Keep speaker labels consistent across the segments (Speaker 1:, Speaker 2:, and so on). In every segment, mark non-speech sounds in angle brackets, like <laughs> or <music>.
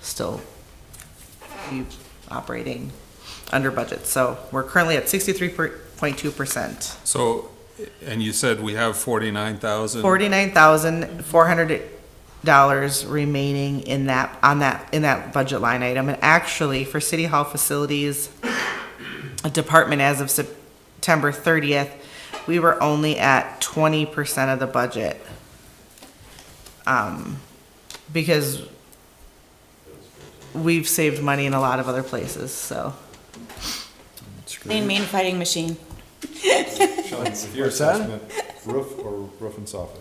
Speaker 1: still be operating under budget. So we're currently at sixty-three point two percent,
Speaker 2: So, and you said we have forty-nine thousand?
Speaker 1: forty-nine thousand four hundred dollars remaining in that, on that, in that budget line item. And actually, for City Hall facilities, a department as of September thirtieth, we were only at twenty percent of the budget. Um, because we've saved money in a lot of other places, so.
Speaker 3: Lean mean fighting machine.
Speaker 4: What's
Speaker 5: What's that?
Speaker 4: Roof or roof and soffit?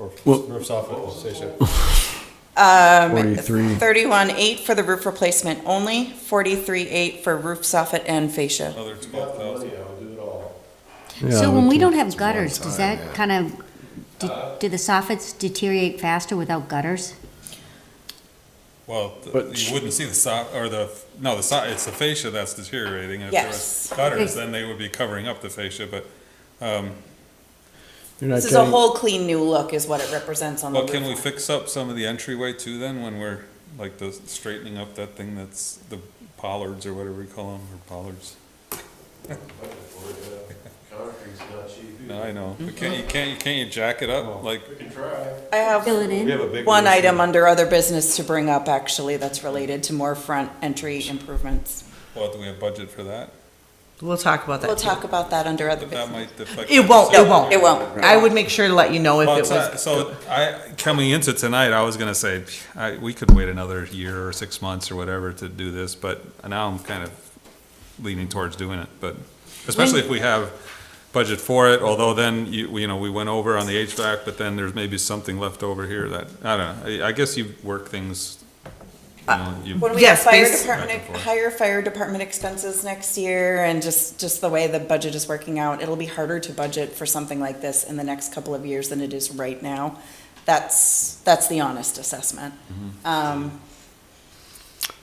Speaker 4: Or
Speaker 5: Well-
Speaker 4: roof soffit, say so.
Speaker 5: Forty-three.
Speaker 3: Thirty-one eight for the roof replacement only, forty-three eight for roof soffit and fascia.
Speaker 2: Another twelve thousand.
Speaker 6: So when we don't have gutters, does that kind of, do- do the soffits deteriorate faster without gutters?
Speaker 2: Well, th-
Speaker 5: But-
Speaker 2: you wouldn't see the so, or the, no, the so, it's the fascia that's deteriorating. and If there was
Speaker 3: Yes.
Speaker 2: gutters, then they would be covering up the fascia, but, um,
Speaker 3: This is a whole clean new look is what it represents on the
Speaker 2: but can we
Speaker 3: roof.
Speaker 2: fix up some of the entryway too then, when we're, like, the straightening up that thing that's the pollards or whatever we call them, or pollards?
Speaker 4: Concrete's not cheap.
Speaker 2: No, I know, but can't you, can't you, can't you jack it up, like,
Speaker 3: I
Speaker 6: Fill
Speaker 3: have
Speaker 6: it
Speaker 4: We have a
Speaker 6: in?
Speaker 4: big.
Speaker 3: one
Speaker 4: roof.
Speaker 3: item under other business to bring up actually that's related to more front entry improvements.
Speaker 2: well, do we have budget for that?
Speaker 1: We'll talk about that.
Speaker 3: We'll talk about that under other
Speaker 2: But that
Speaker 3: business.
Speaker 2: might affect.
Speaker 1: It won't,
Speaker 2: the
Speaker 1: it
Speaker 2: decision.
Speaker 1: won't.
Speaker 3: It won't.
Speaker 1: I would make sure to let you know if
Speaker 2: Well,
Speaker 1: it
Speaker 2: it's not-
Speaker 1: was,
Speaker 2: so I, coming into tonight, I was gonna say, I, we could wait another year or six months or whatever to do this, but now I'm kind of leaning towards doing it, but, especially if we have budget for it, although then, you, we- you know, we went over on the HVAC, but then there's maybe something left over here that, I don't know, I, I guess you work things, you know, you.
Speaker 3: When we have
Speaker 1: Yes,
Speaker 3: fire
Speaker 1: base-
Speaker 3: department, higher fire department expenses next year and just, just the way the budget is working out, it'll be harder to budget for something like this in the next couple of years than it is right now. That's, that's the honest assessment. Um,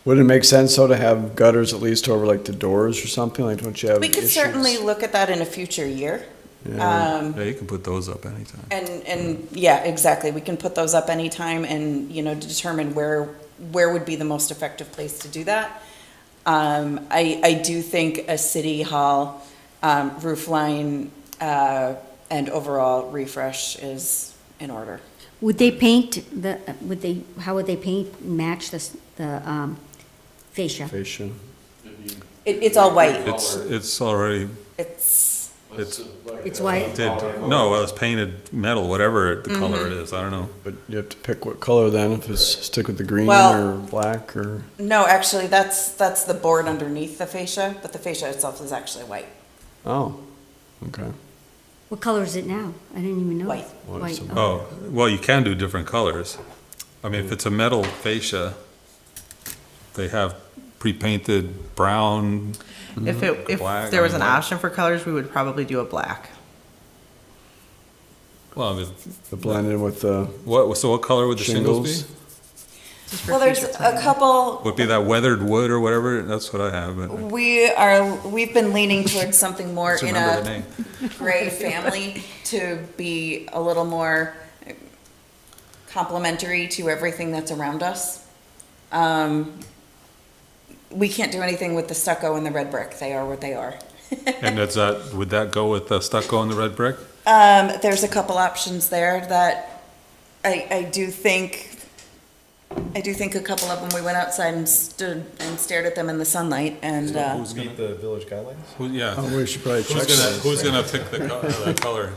Speaker 5: Would it make sense though to have gutters at least over like the doors or something? Like, don't you have?
Speaker 3: we could
Speaker 5: issues?
Speaker 3: certainly look at that in a future year. Um,
Speaker 2: Yeah, you can put those up anytime.
Speaker 3: and, and, yeah, exactly. We can put those up anytime and, you know, determine where, where would be the most effective place to do that. Um, I, I do think a city hall, um, roof line, uh, and overall refresh is in order.
Speaker 6: Would they paint the, would they, how would they paint, match the, s- the um, fascia?
Speaker 5: Fascia.
Speaker 3: It, it's all white.
Speaker 2: It's, it's already,
Speaker 3: It's,
Speaker 2: it's,
Speaker 6: It's white,
Speaker 2: did, no, well, it's painted metal, whatever the color it is, I don't know.
Speaker 5: But you have to pick what color then, if it's stick with the green
Speaker 3: Well-
Speaker 5: or black or,
Speaker 3: no, actually, that's, that's the board underneath the fascia, but the fascia itself is actually white.
Speaker 5: oh, okay.
Speaker 6: what color is it now? I didn't even know.
Speaker 3: White.
Speaker 5: Well,
Speaker 6: White,
Speaker 5: it's a-
Speaker 6: okay.
Speaker 2: Oh, well, you can do different colors. I mean, if it's a metal fascia, they have pre-painted brown,
Speaker 1: if it, if
Speaker 2: Black
Speaker 1: there was
Speaker 2: on
Speaker 1: an
Speaker 2: black.
Speaker 1: option for colors, we would probably do a black.
Speaker 2: well, if-
Speaker 5: The blended with the
Speaker 2: what, so what color would the
Speaker 5: shingles.
Speaker 2: shingles be?
Speaker 1: just for
Speaker 3: Well, there's
Speaker 1: future
Speaker 3: a
Speaker 1: planning.
Speaker 3: couple,
Speaker 2: Would be that weathered wood or whatever, that's what I have, but
Speaker 3: We are, we've been leaning towards something
Speaker 2: I
Speaker 3: more
Speaker 2: just
Speaker 3: in
Speaker 2: remember the
Speaker 3: a <laughs>
Speaker 2: name.
Speaker 3: gray family to be a little more complementary to everything that's around us. Um, we can't do anything with the stucco and the red brick. They are what they are.
Speaker 2: And that's that, would that go with the stucco and the red brick?
Speaker 3: Um, there's a couple options there that I, I do think, I do think a couple of them, we went outside and stood and stared at them in the sunlight and, uh,
Speaker 2: Who's gonna,
Speaker 4: Meet the village guidelines?
Speaker 2: who, yeah,
Speaker 5: Oh, we should probably
Speaker 2: who's
Speaker 5: check
Speaker 2: gonna,
Speaker 5: that.
Speaker 2: who's gonna pick the co- the color?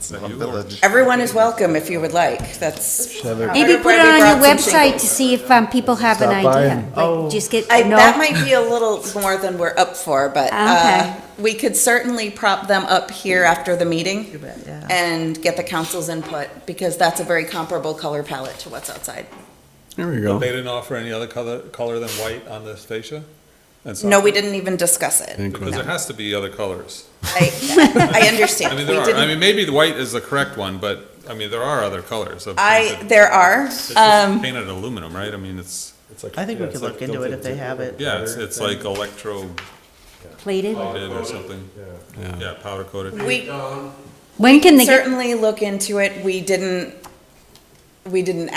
Speaker 2: Is that you or-
Speaker 3: everyone is welcome if you would like. That's.
Speaker 5: Have it-
Speaker 6: Maybe
Speaker 3: Carter
Speaker 6: put it
Speaker 3: Bradley
Speaker 6: on your
Speaker 3: brought some
Speaker 6: website
Speaker 3: shingles.
Speaker 6: to see if um, people have an
Speaker 5: Stop by
Speaker 6: idea.
Speaker 5: and-
Speaker 1: Oh.
Speaker 6: Like, just get,
Speaker 3: I, That
Speaker 6: no,
Speaker 3: might be a little more than we're up for, but
Speaker 6: Okay.
Speaker 3: uh, we could certainly prop them up here after the meeting
Speaker 1: bet, yeah.
Speaker 3: and get the council's input, because that's a very comparable color palette to what's outside.
Speaker 5: There we go.
Speaker 2: They didn't offer any other color, color than white on this fascia? And
Speaker 3: No, we
Speaker 2: soffit?
Speaker 3: didn't even discuss it.
Speaker 5: Think
Speaker 2: Because
Speaker 5: with-
Speaker 2: there has to be other colors.
Speaker 3: I, I understand.
Speaker 2: I mean,
Speaker 3: We
Speaker 2: there are, I
Speaker 3: didn't-
Speaker 2: mean, maybe the white is the correct one, but, I mean, there are other colors of.
Speaker 3: I, there are,
Speaker 2: It's just
Speaker 3: um,
Speaker 2: Painted aluminum, right? I mean, it's,
Speaker 4: It's like-
Speaker 1: I think we
Speaker 4: yeah,
Speaker 1: could
Speaker 4: it's like
Speaker 1: look into it if they
Speaker 4: built
Speaker 1: have it.
Speaker 2: yeah, it's, it's like electro
Speaker 6: plated.
Speaker 2: coated or something.
Speaker 4: Yeah.
Speaker 2: Yeah, powder coated.
Speaker 3: Um, we
Speaker 6: When can they get
Speaker 3: certainly look into it. We didn't, we didn't